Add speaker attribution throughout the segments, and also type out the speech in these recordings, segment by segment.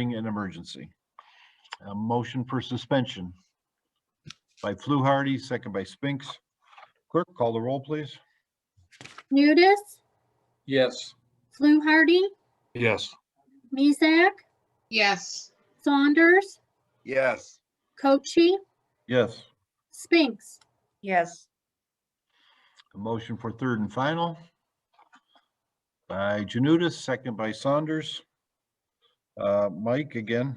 Speaker 1: an emergency. A motion for suspension by Fluharty, second by Spinks. Clerk, call the roll, please.
Speaker 2: Nudis,
Speaker 3: Yes.
Speaker 2: Fluharty,
Speaker 3: Yes.
Speaker 2: Mizek,
Speaker 4: yes,
Speaker 2: Saunders,
Speaker 3: Yes.
Speaker 2: Cochi,
Speaker 1: Yes,
Speaker 2: Spinks,
Speaker 5: yes,
Speaker 1: a motion for third and final by Janutus, second by Saunders. Uh, Mike, again,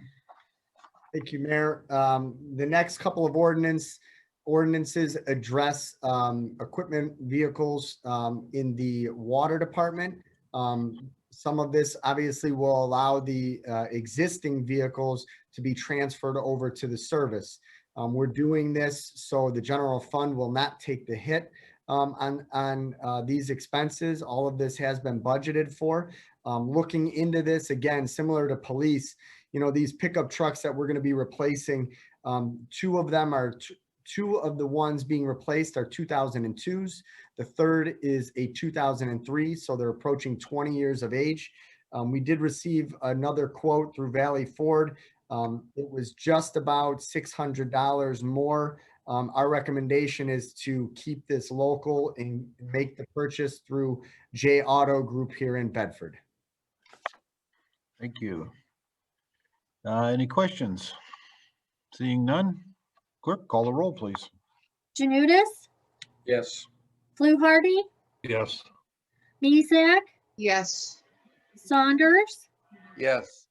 Speaker 6: Thank you, Mayor. Um, the next couple of ordinance, ordinances address, um, equipment vehicles, um, in the water department. Um, some of this obviously will allow the, uh, existing vehicles to be transferred over to the service. Um, we're doing this so the general fund will not take the hit, um, on, on, uh, these expenses. All of this has been budgeted for. Um, looking into this, again, similar to police, you know, these pickup trucks that we're gonna be replacing, um, two of them are, t- two of the ones being replaced are two thousand and twos. The third is a two thousand and three, so they're approaching twenty years of age. Um, we did receive another quote through Valley Ford. Um, it was just about six hundred dollars more. Um, our recommendation is to keep this local and make the purchase through J Auto Group here in Bedford.
Speaker 1: thank you. Uh, any questions? Seeing none, clerk, call the roll, please.
Speaker 2: Janudis,
Speaker 3: Yes.
Speaker 2: Fluharty,
Speaker 3: Yes.
Speaker 2: Mizek,
Speaker 4: yes,
Speaker 2: Saunders,
Speaker 3: Yes.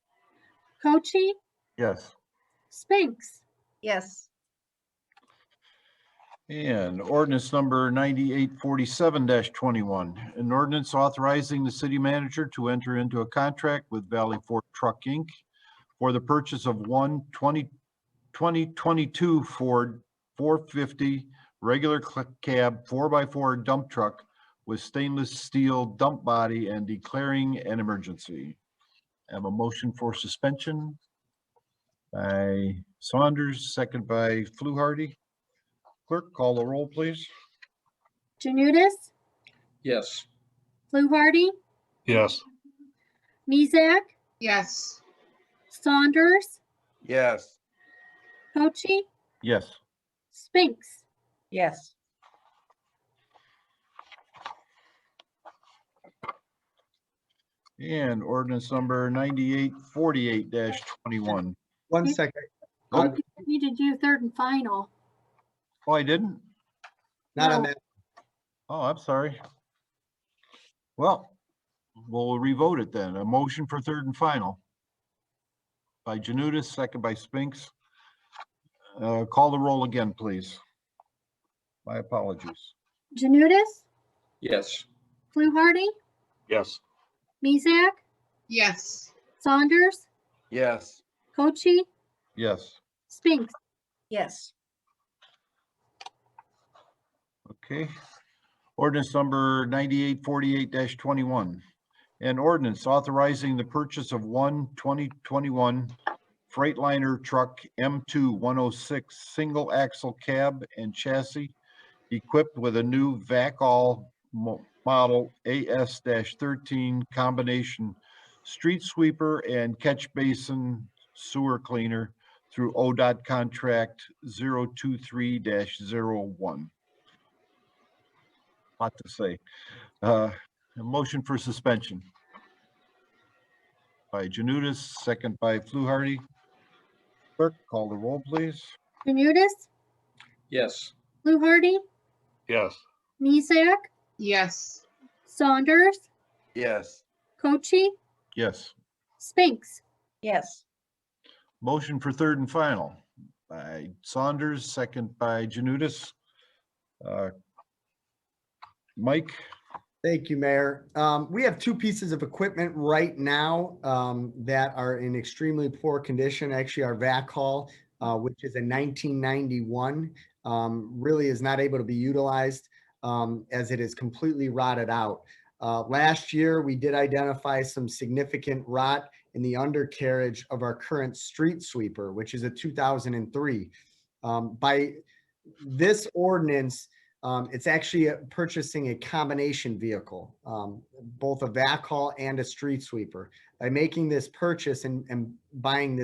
Speaker 2: Cochi,
Speaker 1: Yes.
Speaker 2: Spinks,
Speaker 5: yes,
Speaker 1: And ordinance number ninety-eight forty-seven twenty-one, an ordinance authorizing the city manager to enter into a contract with Valley Fork Truck Inc. for the purchase of one 20 2022 Ford four fifty regular cl- cab four-by-four dump truck with stainless steel dump body and declaring an emergency. Have a motion for suspension by Saunders, second by Fluharty. Clerk, call the roll, please.
Speaker 2: Janudis,
Speaker 3: Yes.
Speaker 2: Fluharty,
Speaker 3: Yes.
Speaker 2: Mizek,
Speaker 4: yes,
Speaker 2: Saunders,
Speaker 3: Yes.
Speaker 2: Cochi,
Speaker 1: Yes.
Speaker 2: Spinks,
Speaker 5: yes,
Speaker 1: And ordinance number ninety-eight forty-eight twenty-one.
Speaker 6: One
Speaker 2: Okay.
Speaker 6: second.
Speaker 1: Oh.
Speaker 2: Oh, you need to do third and final.
Speaker 1: Oh, I didn't?
Speaker 6: Not on
Speaker 2: No.
Speaker 6: that.
Speaker 1: Oh, I'm sorry. Well, we'll revote it then. A motion for third and final. By Janutus, second by Spinks. Uh, call the roll again, please. My apologies.
Speaker 2: Janudis,
Speaker 3: Yes.
Speaker 2: Fluharty,
Speaker 3: Yes.
Speaker 2: Mizek,
Speaker 4: yes,
Speaker 2: Saunders,
Speaker 3: Yes.
Speaker 2: Cochi,
Speaker 1: Yes.
Speaker 2: Spinks,
Speaker 5: yes,
Speaker 1: Okay. Ordinance number ninety-eight forty-eight twenty-one. An ordinance authorizing the purchase of one 2021 Freightliner truck M two one oh six single axle cab and chassis equipped with a new VACAL mo- model AS thirteen combination street sweeper and catch basin sewer cleaner through ODOT contract 023-01 lot to say. Uh, A motion for suspension. By Janutus, second by Fluharty. Clerk, call the roll, please.
Speaker 2: Janudis,
Speaker 3: Yes.
Speaker 2: Fluharty,
Speaker 3: Yes.
Speaker 2: Mizek,
Speaker 4: yes,
Speaker 2: Saunders,
Speaker 3: Yes.
Speaker 2: Cochi,
Speaker 1: Yes.
Speaker 2: Spinks,
Speaker 5: yes,
Speaker 1: Motion for third and final by Saunders, second by Janutus. Uh, Mike,
Speaker 6: Thank you, Mayor. Um, we have two pieces of equipment right now, um, that are in extremely poor condition. Actually, our vac hall, uh, which is a nineteen ninety-one, um, really is not able to be utilized, um, as it is completely rotted out. Uh, last year, we did identify some significant rot in the undercarriage of our current street sweeper, which is a two thousand and three. Um, by this ordinance, um, it's actually uh, purchasing a combination vehicle, um, both a vac haul and a street sweeper. by making this purchase and, and buying this.